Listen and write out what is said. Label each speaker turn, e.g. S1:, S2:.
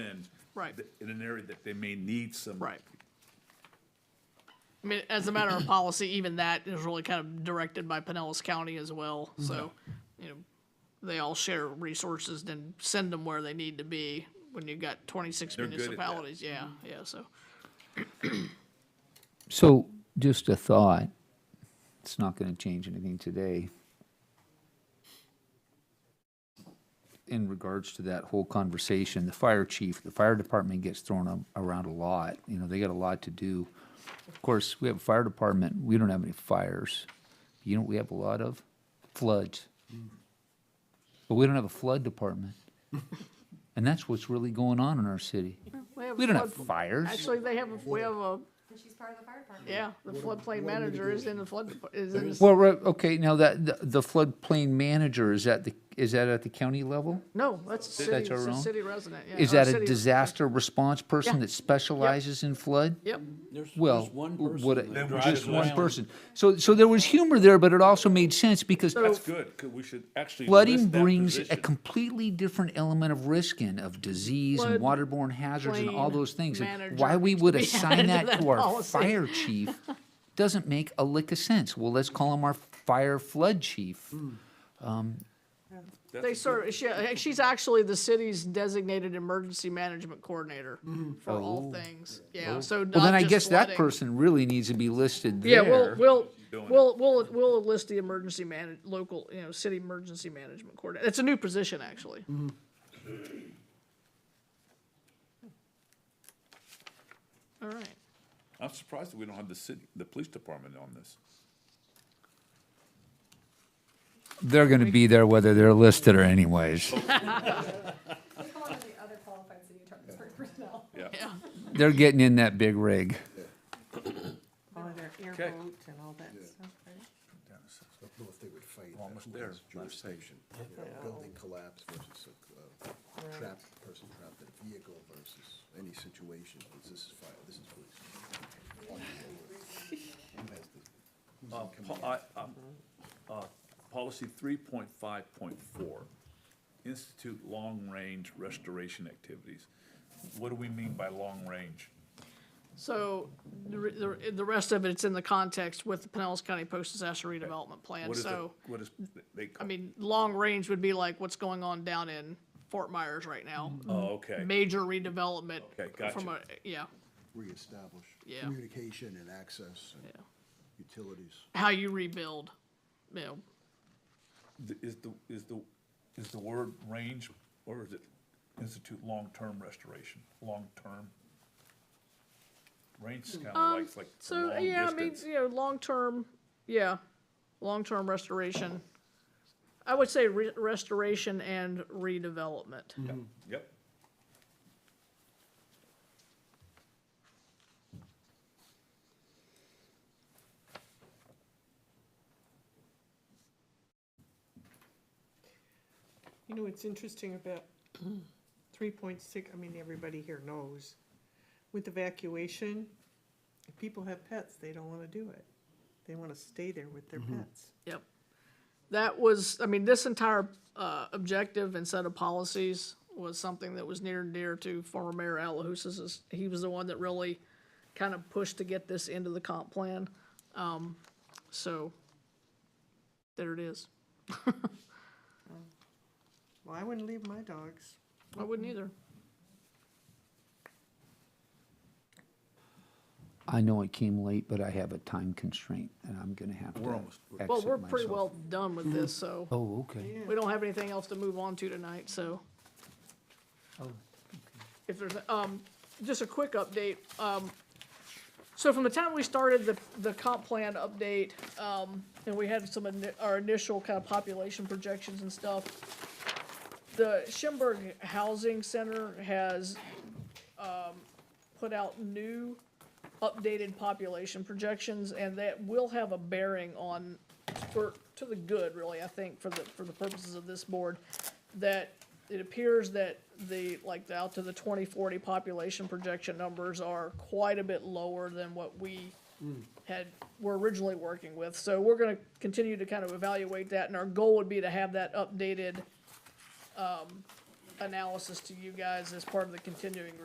S1: Right.
S2: th- in an area that they may need some.
S1: Right. I mean, as a matter of policy, even that is really kind of directed by Pinellas County as well, so, you know, they all share resources, then send them where they need to be when you've got twenty-six
S2: They're good at that.
S1: municipalities, yeah,
S3: Mm-hmm.
S1: yeah, so.
S3: So, just a thought, it's not gonna change anything today. In regards to that whole conversation, the fire chief, the fire department gets thrown a- around a lot, you know, they got a lot to do. Of course, we have a fire department, we don't have any fires, you know, what we have a lot of floods. But we don't have a flood department. And that's what's really going on in our city. We don't have fires.
S1: Actually, they have, a- we have a,
S4: And she's part of the fire department.
S1: yeah, the floodplain manager is in the flood, dep- is in, the-
S3: Well, right, okay, now that, the- the floodplain manager, is that the, is that at the county level?
S1: no, that's a city,
S3: That's our
S1: it's a
S3: own?
S1: city resident, yeah.
S3: Is
S1: or
S3: that a
S1: city-
S3: disaster response person
S1: Yeah.
S3: that specializes in flood?
S1: Yep,
S5: There's,
S3: Well,
S5: there's one person.
S3: what,
S5: that
S2: Then we
S5: drives
S3: just
S2: should
S3: one
S5: around.
S3: person. So, so there was humor there, but it also made sense because
S2: That's good, 'cause we should actually.
S3: flooding
S2: list that
S3: brings a
S2: position.
S3: completely different element of risk in, of disease and
S1: Flood
S3: waterborne hazards and all
S1: plain
S3: those things. And
S1: manager
S3: Why we
S1: needs
S3: would
S1: to be
S3: assign
S1: added to
S3: that
S1: that
S3: to our
S1: policy.
S3: fire chief doesn't make a lick of sense. Well, let's call him our fire flood chief.
S1: they serve, she, she's actually the city's designated emergency management coordinator for all things, yeah, so
S3: Oh, Well,
S1: not
S3: then I
S1: just
S3: guess that
S1: flooding.
S3: person really needs to be listed
S1: Yeah,
S3: there.
S1: we'll, we'll,
S2: doing it.
S1: we'll, we'll, we'll enlist the emergency man, local, you know, city emergency management coordinator. It's a new position, actually.
S3: Mm-hmm.
S1: All right.
S2: I'm surprised that we don't have the city, the police department on this.
S3: They're gonna be there whether they're listed or anyways.
S4: We call her the other qualified city attorney for personnel.
S2: Yeah.
S3: They're getting in that big rig.
S6: All of their
S2: Okay.
S6: airboats and all that stuff, right?
S7: I don't know if they would fight.
S2: Almost
S7: that
S2: there,
S7: person's
S2: last
S7: Jurisdiction,
S6: Yeah.
S7: building collapse versus a uh, trapped, person trapped in a vehicle versus any situation, because this is fire, this is police. Who has the- who's in
S2: Uh,
S7: command?
S2: po- I- uh, uh, Policy three point five point four, institute long-range restoration activities. What do we mean by long-range?
S1: So the, re- the, re- the rest of it's in the context with the Pinellas County Post-Disaster Redevelopment Plan.
S2: What is it-
S1: So,
S2: What is, they, call-
S1: I mean, long range would be like what's going on down in Fort Myers right now.
S2: oh, okay.
S1: Major redevelopment.
S2: Okay,
S1: From a,
S2: gotcha.
S1: yeah,
S7: Reestablish
S1: Yeah.
S7: communication and access and
S1: yeah.
S7: utilities.
S1: How you rebuild, you know,
S2: Th- Is the, is the, is the word range, or is it institute long-term restoration, long-term? Range is kind of like, it's like a
S1: Um, So, yeah,
S2: long
S1: I mean,
S2: distance.
S1: you know, long-term, yeah, long-term restoration. I would say re- restoration and redevelopment.
S2: Yep,
S6: You know, it's interesting about three point six, I mean, everybody here knows, with evacuation, if people have pets, they don't wanna do it. They wanna stay there with their pets.
S1: Yep. That was, I mean, this entire, uh, objective and set of policies was something that was near and dear to former Mayor Alahousas. He was the one that really kind of pushed to get this into the comp plan. Um, so there it is.
S6: Well, I wouldn't leave my dogs.
S1: I wouldn't either.
S3: I know it came late, but I have a time constraint and I'm gonna have to
S2: We're almost-
S3: exit
S1: Well, we're pretty
S3: myself.
S1: well done with this, so.
S3: Oh, okay.
S1: We don't have anything else to move on to tonight, so. If there's, um, just a quick update, um, so from the time we started the, the comp plan update, um, and we had some, ini- our initial kind of population projections and stuff, the Schimberg Housing Center has, um, put out new updated population projections, and that will have a bearing on, for, to the good, really, I think, for the, for the purposes of this board, that it appears that the, like, the out to the twenty forty population projection numbers are quite a bit lower than what we had, were originally working with. So we're gonna continue to kind of evaluate that, and our goal would be to have that updated, um, analysis to you guys as part of the continuing